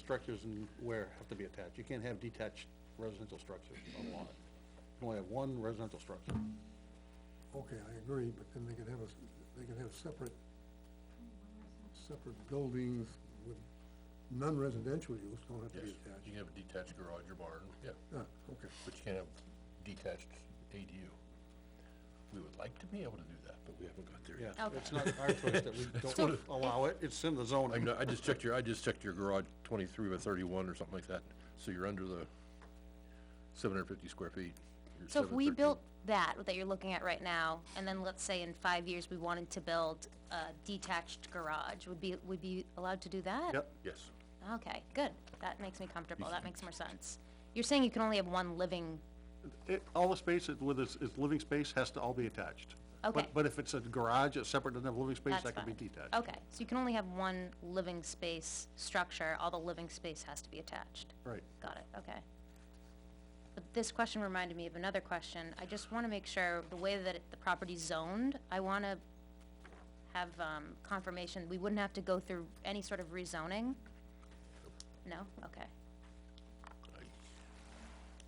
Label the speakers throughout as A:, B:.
A: structures and where have to be attached. You can't have detached residential structures on a lot. You can only have one residential structure.
B: Okay, I agree, but then they could have a, s- they could have separate, separate buildings with non-residential use, don't have to be
C: Yes, you
B: attached.
C: can have a detached garage or barn, yeah,
B: Ah, okay,
C: but you can't have detached ADU. We would like to be able to do that, but we haven't got there
A: Yeah,
C: yet.
A: it's not our choice that we
C: what
A: don't
C: it-
A: allow it, it's in the
C: I
A: zoning.
C: know, I just checked your, I just checked your garage twenty-three by thirty-one or something like that, so you're under the seven hundred fifty square feet. You're
D: So if we
C: 713.
D: built that, that you're looking at right now, and then let's say in five years, we wanted to build a detached garage, would be, would be allowed to do that?
A: Yep,
C: Yes,
D: Okay, good, that makes me comfortable, that makes more sense. You're saying you can only have one living,
A: it, all the space that- with its, its living space has to all be attached.
D: Okay.
A: But, but if it's a garage, it's separate, doesn't have living space,
D: that's
A: that
D: fine.
A: can be detached.
D: Okay, so you can only have one living space structure, all the living space has to be attached.
A: Right.
D: Got it, okay. But this question reminded me of another question. I just wanna make sure, the way that it- the property's zoned, I wanna have, um, confirmation, we wouldn't have to go through any sort of rezoning? No? Okay.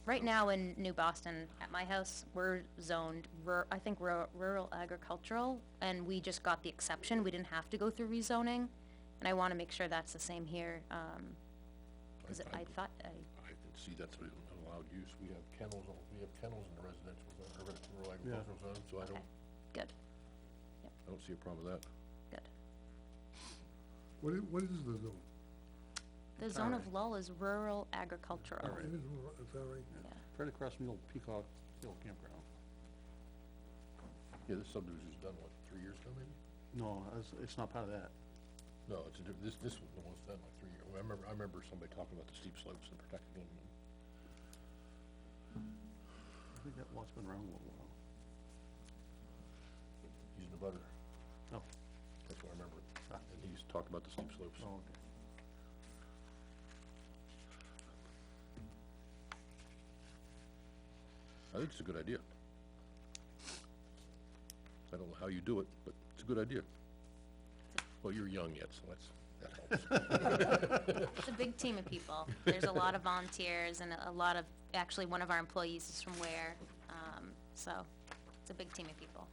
D: Right now in New Boston, at my house, we're zoned rur- I think ru- rural agricultural, and we just got the exception, we didn't have to go through rezoning. And I wanna make sure that's the same here, um, cause
C: I-
D: I thought, I,
C: I can see that's an allowed use, we have kennels, on- we have kennels in the residential zone, or rural agricultural zone, so I
D: okay,
C: don't,
D: good,
C: I don't see a problem with that.
D: good.
B: what is, what is the zone?
D: The zone of lull is rural agricultural.
B: It is, rural, is that right?
A: Right across from the old Peacock Hill campground.
C: Yeah, this subdivision was done, what, three years ago maybe?
A: No, it's, it's not part of that.
C: No, it's a, diff- this, this was the one that's done like three years, I remember, I remember somebody talking about the steep slopes and protecting them. and-
A: I think that lot's been around a little while.
C: He's the butter,
A: No,
C: that's what I remember, and he's talking about the steep slopes.
A: Ah. oh, okay.
C: I think it's a good idea. I don't know how you do it, but it's a good idea. Well, you're young yet, so that's, that helps.
D: It's a big team of people. There's a lot of volunteers and a lot of, actually, one of our employees is from Ware, um, so it's a big team of people.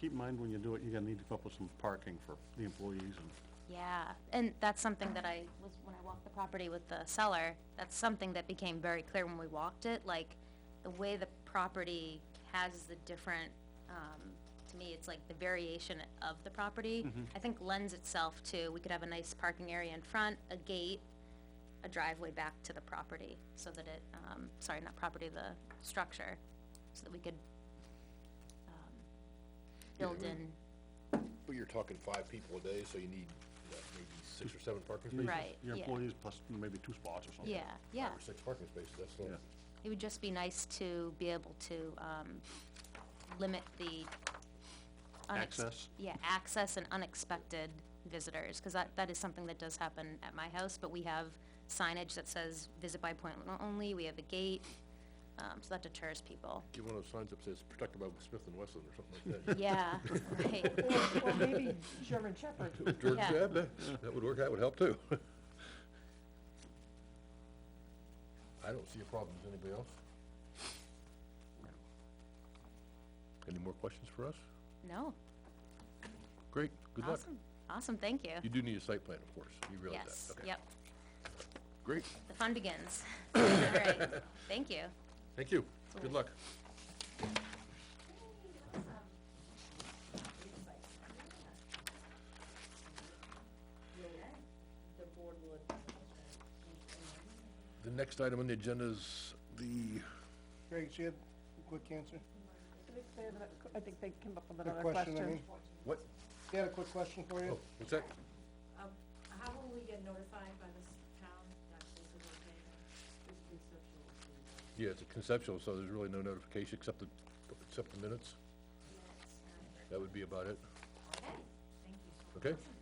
A: Keep in mind when you do it, you're gonna need to come up with some parking for the employees and,
D: Yeah, and that's something that I was, when I walked the property with the seller, that's something that became very clear when we walked it, like, the way the property has the different, um, to me, it's like the variation of the property, I think lends itself to, we could have a nice parking area in front, a gate, a driveway back to the property, so that it, um, sorry, not property, the structure, so that we could, um, build
C: Yeah, I
D: in,
C: But you're talking five people a day, so you need, what, maybe six or seven parking spaces?
D: right,
A: your
D: yeah,
A: employees plus maybe two spots or something.
D: yeah, yeah.
C: Five or six parking spaces, that's not,
A: Yeah.
D: It would just be nice to be able to, um, limit the. unex-
A: Access?
D: Yeah, access and unexpected visitors, cause that, that is something that does happen at my house, but we have signage that says visit by appointment only, we have a gate, um, so that deters people.
C: get one of those signs up that says protected by Smith and Wesson or something like that.
D: Yeah, right,
E: Or maybe German Shepherd.
C: George,
D: Yeah.
C: yeah, that, that would work, that would help too. I don't see a problem, does anybody else? Any more questions for us?
D: no,
C: Great, good luck.
D: awesome, awesome, thank you.
C: You do need a site plan, of course, you realize that?
D: Yes,
C: Okay.
D: yep,
C: Great,
D: the fun begins. All right, thank you.
C: thank you, good luck. The next item on the agenda is the
F: Greg, she had a quick answer?
E: I think they came up with
F: A
E: another
F: question, I
E: question.
F: mean.
C: What?
F: She had a quick question for
C: Oh,
F: you?
C: what's that?
G: Um, how will we get notified by this town that this is okay? This conceptual.
C: Yeah, it's a conceptual, so there's really no notification except the, except the minutes. That would be about it,
G: Okay, thank you so much.
C: okay?